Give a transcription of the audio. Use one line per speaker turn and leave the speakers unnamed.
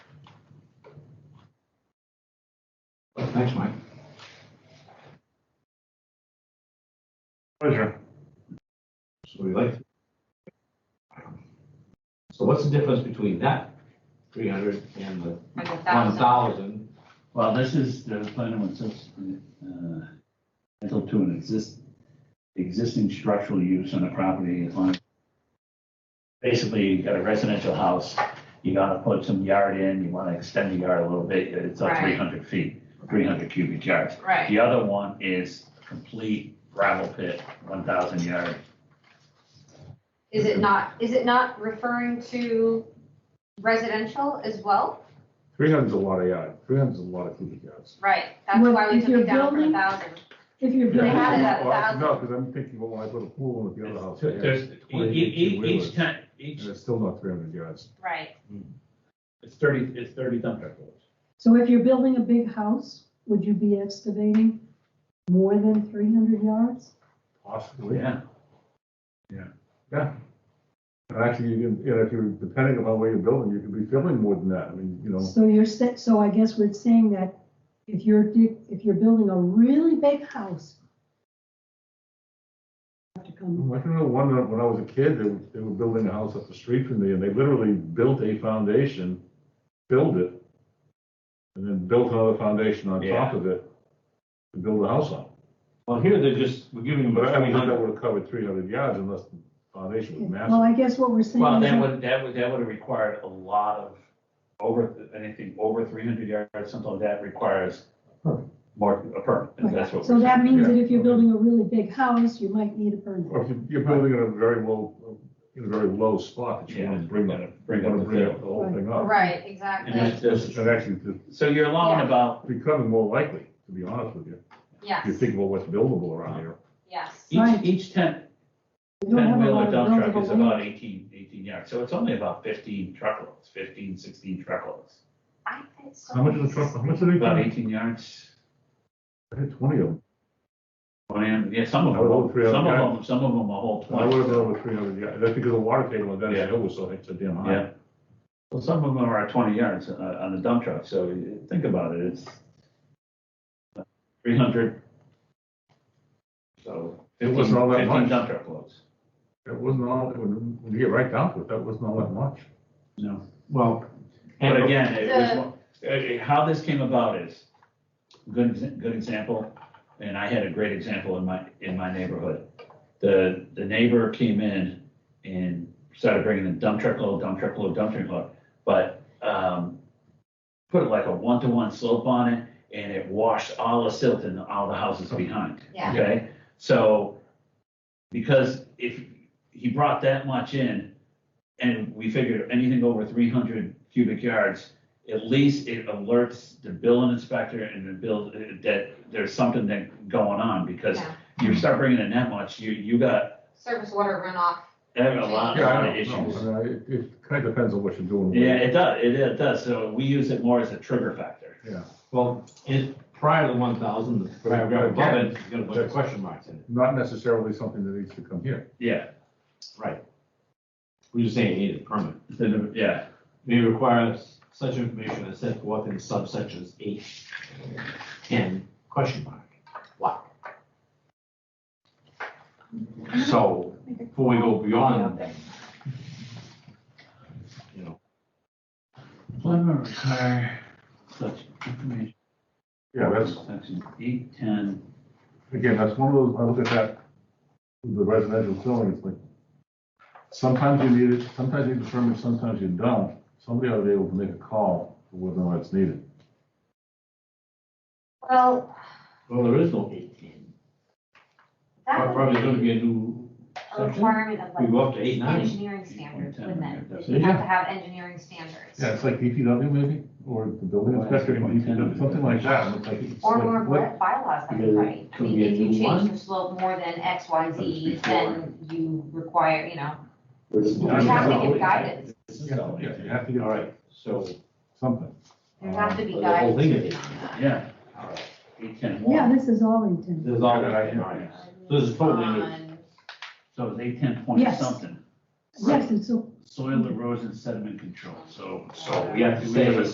Thanks, Mike.
Pleasure.
So we like. So what's the difference between that three hundred and the
Like a
one
thousand.
thousand?
Well, this is the planning one subsequent, uh, rental to an exist, existing structural use on the property on. Basically, you got a residential house, you gotta put some yard in, you wanna extend the yard a little bit, it's up
Right.
three hundred feet, three hundred cubic yards.
Right,
The other one is complete gravel pit, one thousand yard.
is it not, is it not referring to residential as well?
Three hundred's a lot of yard, three hundred's a lot of cubic yards.
Right, that's
Well,
why we
if
took it
you're
down from a
building-
thousand.
If you're
They had it
building,
at a thousand.
No, because I'm thinking, well, when I put a pool in the other house, yeah,
There's, e- e- e- each time, each,
and it's still not three hundred yards.
Right,
it's thirty, it's thirty dump truck loads.
so if you're building a big house, would you be excavating more than three hundred yards?
Possibly.
Yeah.
Yeah. And actually, you can, you know, if you're, depending upon where you're building, you could be filling more than that, I mean, you know.
So you're, sa- so I guess we're saying that if you're, dig- if you're building a really big house, you have to come,
I can remember one, that when I was a kid, they, were- they were building a house up the street from me, and they literally built a foundation, filled it, and then built another foundation on top
Yeah.
of it to build a house on.
Well, here they're just, we're giving them
But I
three
mean, that
hundred.
would have covered three hundred yards unless the foundation was
well,
massive.
I guess what we're saying
Well,
is
that
that-
would, that would, that would have required a lot of, over, anything over three hundred yards, something like that requires
Permit.
more, a permit, and that's what.
So
we're
that
saying.
means that if
Yeah.
you're building a really big house, you might need a
Or
permit.
if you- you're building in a very low, in a very low spot, that you want to bring that,
Bring
you
up
want
the
to bring up
bill.
the whole thing up.
right,
And that's-
exactly,
that's-
And actually, it's
So you're allowing
Yeah.
about,
becoming more likely, to be honest with you, if
yes,
you think about what's buildable around here.
yes.
each,
Right.
each ten,
You don't
ten
have a lot
wheeler
of
dump truck is
buildable land.
about 18 18 yards, so it's only about fifteen truckloads, 15, 16 truckloads.
I think so.
How much is a truck, how much do they,
About
Hmm.
I
eighteen yards,
had twenty of them.
Well, yeah, some of
I would
them,
agree on
some of
that.
them, some of them a whole
I would have
twenty.
been over three hundred, yeah, that's because the water table on that hill was so, it's a damn high.
Yeah. Well, some of them are at twenty yards uh, on a dump truck, so you think about it, it's uh, three hundred. So
It
fifteen,
wasn't all that
fifteen
much.
dump truck loads.
It wasn't all, when when you get right down to it, that wasn't all that much.
No,
Well. and-
but again, it was,
The-
one- uh, uh, how this came about is, good, exa- good example, and I had a great example in my, in my neighborhood. The, the neighbor came in and started bringing in dump truck load, dump truck load, dump truck load, but, um, put like a one-to-one slope on it, and it washed all the silt in all the houses behind.
Yeah.
Okay, so, because if he brought that much in, and we figured anything over three hundred cubic yards, at least it alerts the building inspector and the build, uh, that there's something that going on, because
Yeah.
you start bringing in that much, you, you got
Surface water runoff,
a lot, a
Yeah,
lot of
I
issues.
don't know, I mean, it, it kind of depends on what you're doing.
Yeah, it does, it, it does, so we use it more as a trigger factor.
Yeah,
Well, it, prior to one thousand, the paragraph above it, it's got a bunch of question marks in it.
not necessarily something that needs to come here.
Yeah,
Right. We're just saying it needed a permit.
then, yeah,
May require such information as set forth in subsections eight and question mark, what? So, before we go beyond, you know,
plumber require such information.
Yeah, that's,
Section eight, ten,
again, that's one of those, I look at that, the residential zoning, it's like, sometimes you need it, sometimes you need the permit, sometimes you don't. Somebody ought to be able to make a call for whether or not it's needed.
well,
well, there is no eighteen.
that
Probably gonna
would be
be a new
a
section.
requirement of
We
like
go up to eight, nine.
engineering standards, wouldn't it?
Yeah.
You have to have engineering standards.
Yeah, it's like DPW maybe, or the building inspector, DPW, something like that. It's like- it's
Or
like,
more
what-
by- bylaws, that
Yeah,
would right. I
could
mean,
be a
if you
new
change
one.
the slope more than X, Y, Z,
That's
then you require, you know,
You
you
Yeah,
have
no,
to give guidance.
Yeah, yeah, you have to get
All right, so,
something.
There have to be
Oh, The whole thing is-
guidance.
yeah,
all right,
eight, ten,
Yeah,
one.
this is all intended.
there's uh, all that I can, all right. This is totally new.
On-
So it's eight, ten point
Yes.
something,
Yes, it's a
soil erosion sediment control, so.
So we have to say.